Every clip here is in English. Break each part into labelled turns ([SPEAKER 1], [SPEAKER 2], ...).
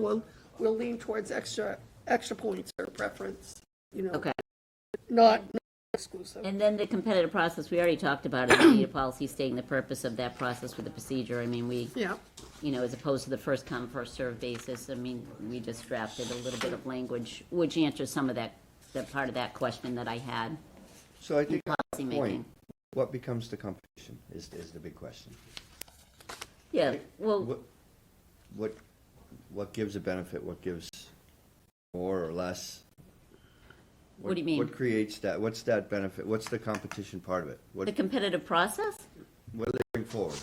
[SPEAKER 1] we'll, we'll lean towards extra, extra points or preference, you know,
[SPEAKER 2] Okay,
[SPEAKER 1] not not exclusive.
[SPEAKER 2] and then the competitive process, we already talked about it, in the policy stating the purpose of that process with the procedure, I mean, we,
[SPEAKER 1] Yeah,
[SPEAKER 2] you know, as opposed to the first come, first served basis, I mean, we just drafted a little bit of language, which answers some of that, that part of that question that I had.
[SPEAKER 3] So I think,
[SPEAKER 2] policy making.
[SPEAKER 3] point, what becomes the competition is, is the big question.
[SPEAKER 2] Yeah, well,
[SPEAKER 3] What, what, what gives a benefit, what gives more or less?
[SPEAKER 2] What do you mean?
[SPEAKER 3] What creates that, what's that benefit, what's the competition part of it? What,
[SPEAKER 2] the competitive process,
[SPEAKER 3] what do they bring forward?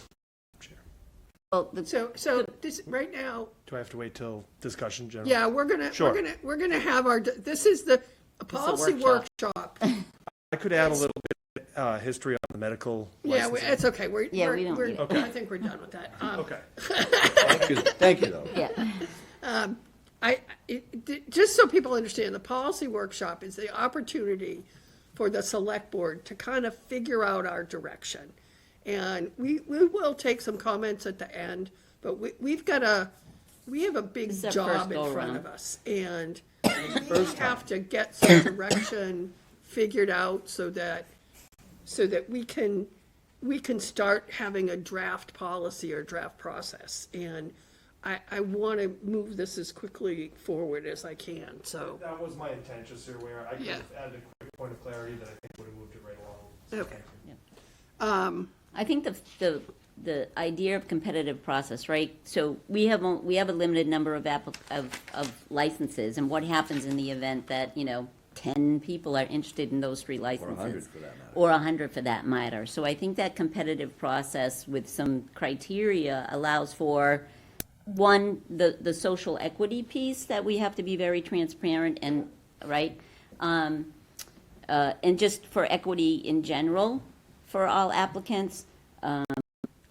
[SPEAKER 2] well, the
[SPEAKER 1] so, so this, right now,
[SPEAKER 4] Do I have to wait till discussion general?
[SPEAKER 1] yeah, we're gonna, we're
[SPEAKER 4] Sure.
[SPEAKER 1] gonna, we're gonna have our, this is the a policy
[SPEAKER 2] workshop.
[SPEAKER 1] workshop.
[SPEAKER 4] I could add a little bit, uh, history on the medical
[SPEAKER 1] Yeah, we-
[SPEAKER 4] licensing.
[SPEAKER 1] it's okay, we're,
[SPEAKER 2] Yeah,
[SPEAKER 1] we're,
[SPEAKER 2] we don't
[SPEAKER 1] we're-
[SPEAKER 2] need it.
[SPEAKER 1] I think we're done with that. Um,
[SPEAKER 4] Okay.
[SPEAKER 3] Thank you, thank you though.
[SPEAKER 2] Yeah,
[SPEAKER 1] I, it- d- just so people understand, the policy workshop is the opportunity for the select board to kind of figure out our direction. And we, we will take some comments at the end, but we, we've got a, we have a big
[SPEAKER 2] This is our
[SPEAKER 1] job
[SPEAKER 2] first
[SPEAKER 1] in front
[SPEAKER 2] go-around.
[SPEAKER 1] of us. And we have to get some direction figured out so that, so that we can, we can start having a draft policy or draft process. And I, I want to move this as quickly forward as I can, so,
[SPEAKER 4] That was my intention, Sir Ware. I could
[SPEAKER 1] Yeah.
[SPEAKER 4] have added a quick point of clarity that I think would have moved it right along.
[SPEAKER 1] okay.
[SPEAKER 2] I think the, the, the idea of competitive process, right? So we have, on- we have a limited number of app, of, of licenses, and what happens in the event that, you know, ten people are interested in those three licenses?
[SPEAKER 3] 100 for that matter.
[SPEAKER 2] Or a hundred for that matter. So I think that competitive process with some criteria allows for, one, the, the social equity piece that we have to be very transparent and, right? Um, uh, and just for equity in general for all applicants, um,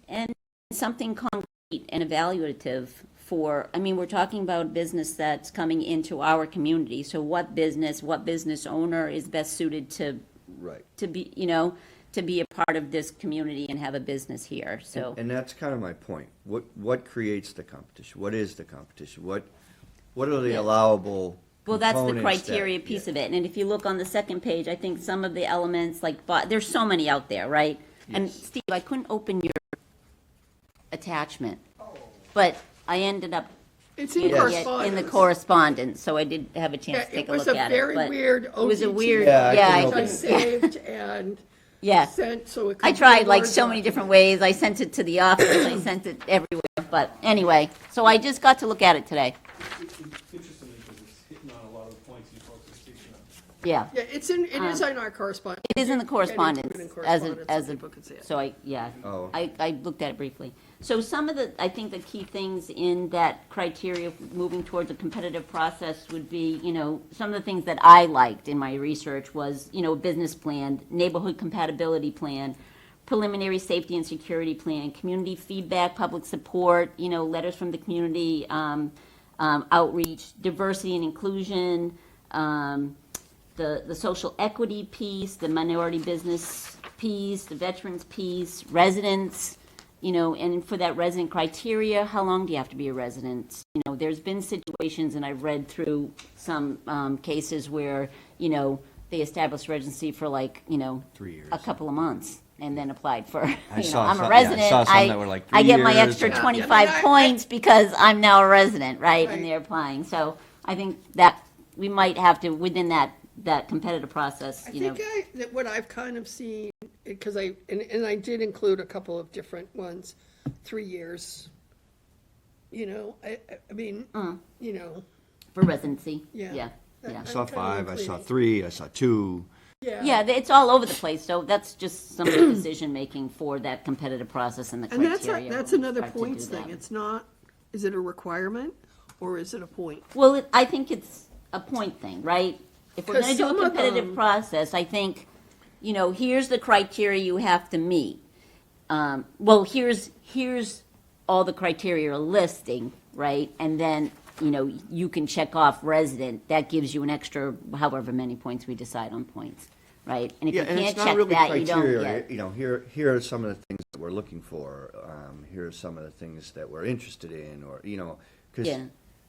[SPEAKER 2] and something concrete and evaluative for, I mean, we're talking about business that's coming into our community, so what business, what business owner is best suited to,
[SPEAKER 3] Right.
[SPEAKER 2] to be, you know, to be a part of this community and have a business here, so.
[SPEAKER 3] And that's kind of my point. What, what creates the competition? What is the competition? What, what are the
[SPEAKER 2] Yeah.
[SPEAKER 3] allowable
[SPEAKER 2] Well, that's the
[SPEAKER 3] components that-
[SPEAKER 2] criteria piece of it, and if you look on the second page, I think some of the elements, like, but, there's so many out there, right? And Steve, I couldn't open your attachment, but I ended up
[SPEAKER 1] It's
[SPEAKER 2] getting
[SPEAKER 1] in
[SPEAKER 2] it in the
[SPEAKER 1] correspondence.
[SPEAKER 2] correspondence, so I did have a
[SPEAKER 1] Yeah,
[SPEAKER 2] chance to
[SPEAKER 1] it
[SPEAKER 2] take a
[SPEAKER 1] was
[SPEAKER 2] look
[SPEAKER 1] a
[SPEAKER 2] at it,
[SPEAKER 1] very
[SPEAKER 2] but.
[SPEAKER 1] weird
[SPEAKER 2] It was a
[SPEAKER 1] OTT.
[SPEAKER 2] weird,
[SPEAKER 3] Yeah, I
[SPEAKER 2] yeah,
[SPEAKER 3] couldn't
[SPEAKER 1] Which I
[SPEAKER 2] I-
[SPEAKER 3] open it.
[SPEAKER 1] saved and
[SPEAKER 2] yeah.
[SPEAKER 1] sent, so it could.
[SPEAKER 2] I
[SPEAKER 1] be
[SPEAKER 2] tried like
[SPEAKER 1] Word
[SPEAKER 2] so many
[SPEAKER 1] document.
[SPEAKER 2] different ways, I sent it to the office, I sent it everywhere, but anyway, so I just got to look at it today,
[SPEAKER 5] It's interesting because it's hitting on a lot of the points you folks are speaking on.
[SPEAKER 2] yeah.
[SPEAKER 1] Yeah, it's in, it
[SPEAKER 2] Um,
[SPEAKER 1] is in our correspondence.
[SPEAKER 2] It is in the
[SPEAKER 1] Get
[SPEAKER 2] correspondence
[SPEAKER 1] into it in
[SPEAKER 2] as a,
[SPEAKER 1] correspondence so
[SPEAKER 2] as a,
[SPEAKER 1] people can see it.
[SPEAKER 2] so I, yeah.
[SPEAKER 3] Oh.
[SPEAKER 2] I, I looked at it briefly. So some of the, I think the key things in that criteria of moving towards a competitive process would be, you know, some of the things that I liked in my research was, you know, business plan, neighborhood compatibility plan, preliminary safety and security plan, community feedback, public support, you know, letters from the community, um, um, outreach, diversity and inclusion, um, the, the social equity piece, the minority business piece, the veterans piece, residents, you know, and for that resident criteria, how long do you have to be a resident? You know, there's been situations, and I've read through some um, cases where, you know, they established residency for like, you know,
[SPEAKER 3] Three years.
[SPEAKER 2] a couple of months and then applied for,
[SPEAKER 3] I
[SPEAKER 2] you know,
[SPEAKER 3] saw
[SPEAKER 2] I'm
[SPEAKER 3] some-
[SPEAKER 2] a
[SPEAKER 3] yeah, I
[SPEAKER 2] resident.
[SPEAKER 3] saw some that were like
[SPEAKER 2] I
[SPEAKER 3] three
[SPEAKER 2] get my
[SPEAKER 3] years
[SPEAKER 2] extra
[SPEAKER 3] and- Yeah.
[SPEAKER 2] 25
[SPEAKER 1] Yeah.
[SPEAKER 2] points because I'm now a resident, right?
[SPEAKER 1] Right.
[SPEAKER 2] And they're applying. So I think that we might have to, within that, that competitive process,
[SPEAKER 1] I
[SPEAKER 2] you know.
[SPEAKER 1] think I, that what I've kind of seen, because I, and, and I did include a couple of different ones, three years. You know, I, I- I mean,
[SPEAKER 2] Uh.
[SPEAKER 1] you know,
[SPEAKER 2] For residency,
[SPEAKER 1] Yeah.
[SPEAKER 2] yeah, yeah.
[SPEAKER 3] I saw
[SPEAKER 1] I'm kinda
[SPEAKER 3] five, I saw
[SPEAKER 1] including-
[SPEAKER 3] three, I saw two.
[SPEAKER 1] yeah.
[SPEAKER 2] Yeah, th- it's all over the place, so that's just some of the decision-making for that competitive process and the
[SPEAKER 1] And
[SPEAKER 2] criteria.
[SPEAKER 1] that's, a- that's
[SPEAKER 2] will
[SPEAKER 1] another
[SPEAKER 2] start to
[SPEAKER 1] points
[SPEAKER 2] do that.
[SPEAKER 1] thing. It's not, is it a requirement or is it a point?
[SPEAKER 2] Well, it- I think it's a point thing, right? If we're
[SPEAKER 1] 'Cause
[SPEAKER 2] gonna do a
[SPEAKER 1] some of
[SPEAKER 2] competitive
[SPEAKER 1] them-
[SPEAKER 2] process, I think, you know, here's the criteria you have to meet. Um, well, here's, here's all the criteria are listing, right? And then, you know, you can check off resident, that gives you an extra however many points we decide on points, right? And if
[SPEAKER 3] Yeah,
[SPEAKER 2] you
[SPEAKER 3] and
[SPEAKER 2] can't
[SPEAKER 3] it's
[SPEAKER 2] check
[SPEAKER 3] not really
[SPEAKER 2] that, you don't
[SPEAKER 3] criteria,
[SPEAKER 2] get.
[SPEAKER 3] you know, here, here are some of the things that we're looking for, um, here are some of the things that we're interested in, or, you know, because
[SPEAKER 2] Yeah.